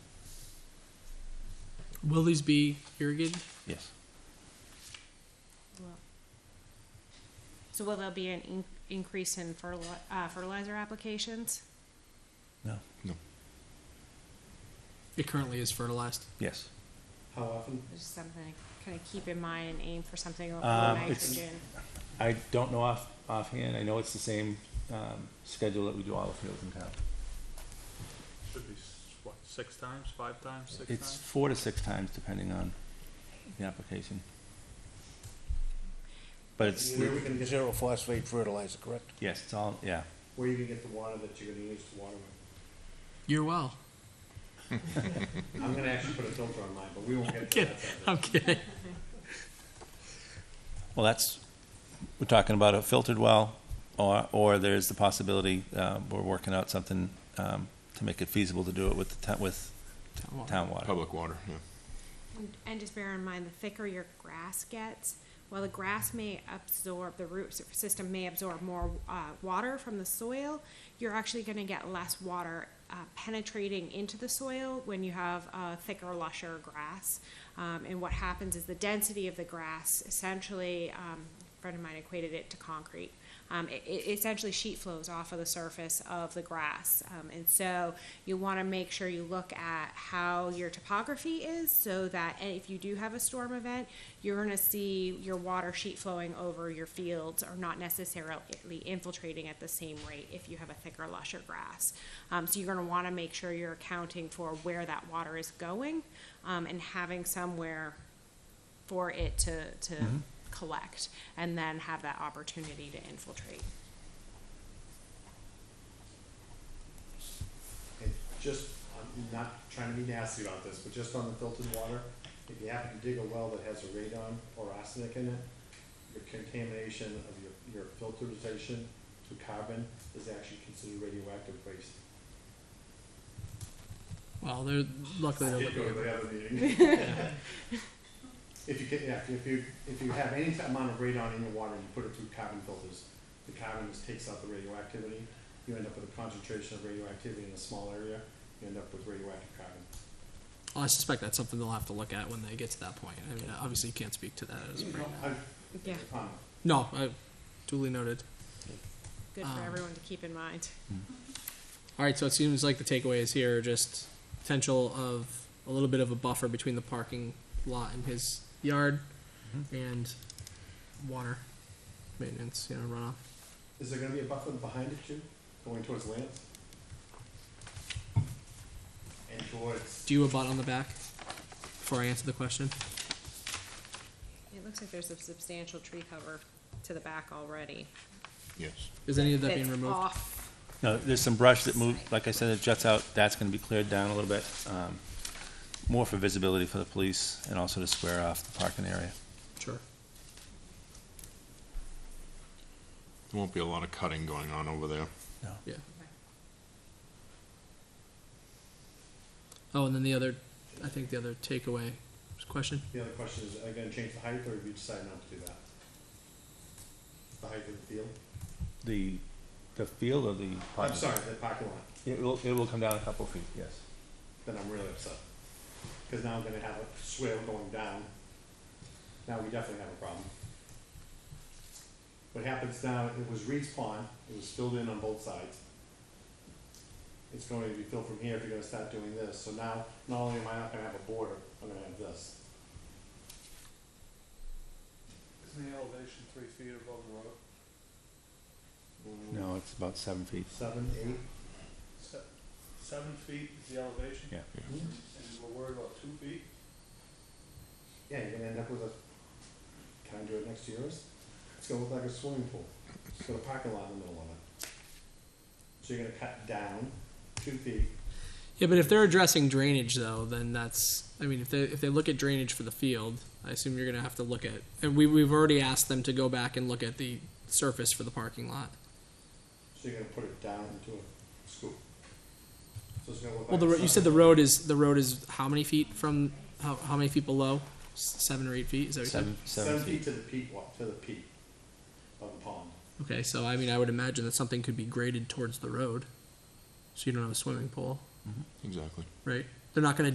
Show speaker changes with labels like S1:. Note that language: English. S1: Will these be irrigated?
S2: Yes.
S3: So will there be an in- increase in fertili- uh, fertilizer applications?
S2: No.
S1: It currently is fertilized.
S2: Yes.
S4: How often?
S3: Which is something I kind of keep in mind and aim for something like
S2: Um, it's-
S3: nitrogen.
S2: I don't know off offhand. I know it's the same um, schedule that we do all the fields in town.
S5: Should be, s- what, six times, five times, six
S2: It's
S5: times?
S2: four to six times depending on the application. But it's,
S4: Where are we gonna get,
S6: Zero phosphate fertilizer, correct?
S2: yes, it's all, yeah.
S4: where are you gonna get the water that you're gonna use to water with?
S1: You're well.
S4: I'm gonna actually put a filter on mine, but we won't get to
S1: Kidding.
S4: that.
S1: I'm kidding.
S2: Well, that's, we're talking about a filtered well, or, or there's the possibility, uh, we're working out something, um, to make it feasible to do it with the town, with
S1: Town water.
S2: town water.
S7: Public water, yeah.
S3: And- And just bear in mind, the thicker your grass gets, while the grass may absorb, the root sy- system may absorb more uh, water from the soil, you're actually going to get less water uh, penetrating into the soil when you have uh, thicker, lusher grass. Um, and what happens is the density of the grass essentially, um, a friend of mine equated it to concrete. Um, it, it essentially sheet flows off of the surface of the grass. Um, and so you want to make sure you look at how your topography is so that a- if you do have a storm event, you're going to see your water sheet flowing over your fields or not necessarily infiltrating at the same rate if you have a thicker, lusher grass. Um, so you're going to want to make sure you're accounting for where that water is going um, and having somewhere for it to, to collect and then have that opportunity to infiltrate.
S4: And just, I'm not trying to be nasty about this, but just on the filtered water, if you happen to dig a well that has a radon or arsenic in it, your contamination of your, your filterization to carbon is actually considered radioactive waste.
S1: Well, they're luckily
S4: I
S1: they're
S4: did
S1: looking
S4: go to
S1: at
S4: the other meeting. If you get, yeah, if you, if you have any amount of radon in your water, you put it through carbon filters. The carbon just takes out the radioactivity, you end up with a concentration of radioactivity in a small area, you end up with radioactive carbon.
S1: Well, I suspect that's something they'll have to look at when they get to that point. I mean, obviously you can't speak to that as of right now.
S4: I-
S3: Yeah,
S4: um,
S1: No, I, duly noted.
S3: good
S1: Um,
S3: for everyone to keep in mind.
S1: All right, so it seems like the takeaways here are just potential of a little bit of a buffer between the parking lot and his yard and water maintenance, you know, runoff.
S4: Is there gonna be a buffer behind it too, going towards Lance? And towards,
S1: Do you abut on the back before I answer the question?
S3: It looks like there's a substantial tree cover to the back already.
S7: Yes.
S1: Is any of that
S3: That's
S1: being removed?
S3: off.
S2: No, there's some brush that moved, like I said, it juts out, that's gonna be cleared down a little bit, um, more for visibility for the police and also to square off the parking area.
S1: Sure.
S7: There won't be a lot of cutting going on over there.
S1: Yeah. Oh, and then the other, I think the other takeaway question.
S4: the other question is, are they gonna change the height or have you decided not to do that? The height of the field?
S2: The, the field or the?
S4: I'm sorry, the parking lot.
S2: It will, it will come down a couple feet, yes.
S4: then I'm really upset. Because now I'm gonna have a swale going down. Now we definitely have a problem. What happens now, it was Reed's pond, it was filled in on both sides. It's going to be filled from here if you're gonna start doing this, so now, not only am I not gonna have a border, I'm gonna have this.
S5: Isn't the elevation three feet above the road?
S2: No, it's about seven feet.
S4: Seven, eight,
S5: Seven feet is the elevation,
S2: Yeah.
S5: and we're worried about two feet?
S4: yeah, you're gonna end up with a, can I do it next to yours? It's gonna look like a swimming pool, it's got a parking lot in the middle of it. So you're gonna cut down two feet,
S1: Yeah, but if they're addressing drainage though, then that's. I mean, if they if they look at drainage for the field, I assume you're gonna have to look at. And we we've already asked them to go back and look at the surface for the parking lot.
S4: So you're gonna put it down into a scoop. So it's gonna look
S1: Well,
S4: like.
S1: the ro-
S4: a
S1: you said the
S4: sign.
S1: road is the road is how many feet from how how many feet below? S- Seven or eight feet? Is that what you said?
S2: Seven,
S4: Seven
S2: seven
S4: feet
S2: feet.
S4: to the peak, wa- to the peak of the pond.
S1: Okay, so I mean, I would imagine that something could be graded towards the road, so you don't have a swimming pool,
S7: Exactly.
S1: right? They're not gonna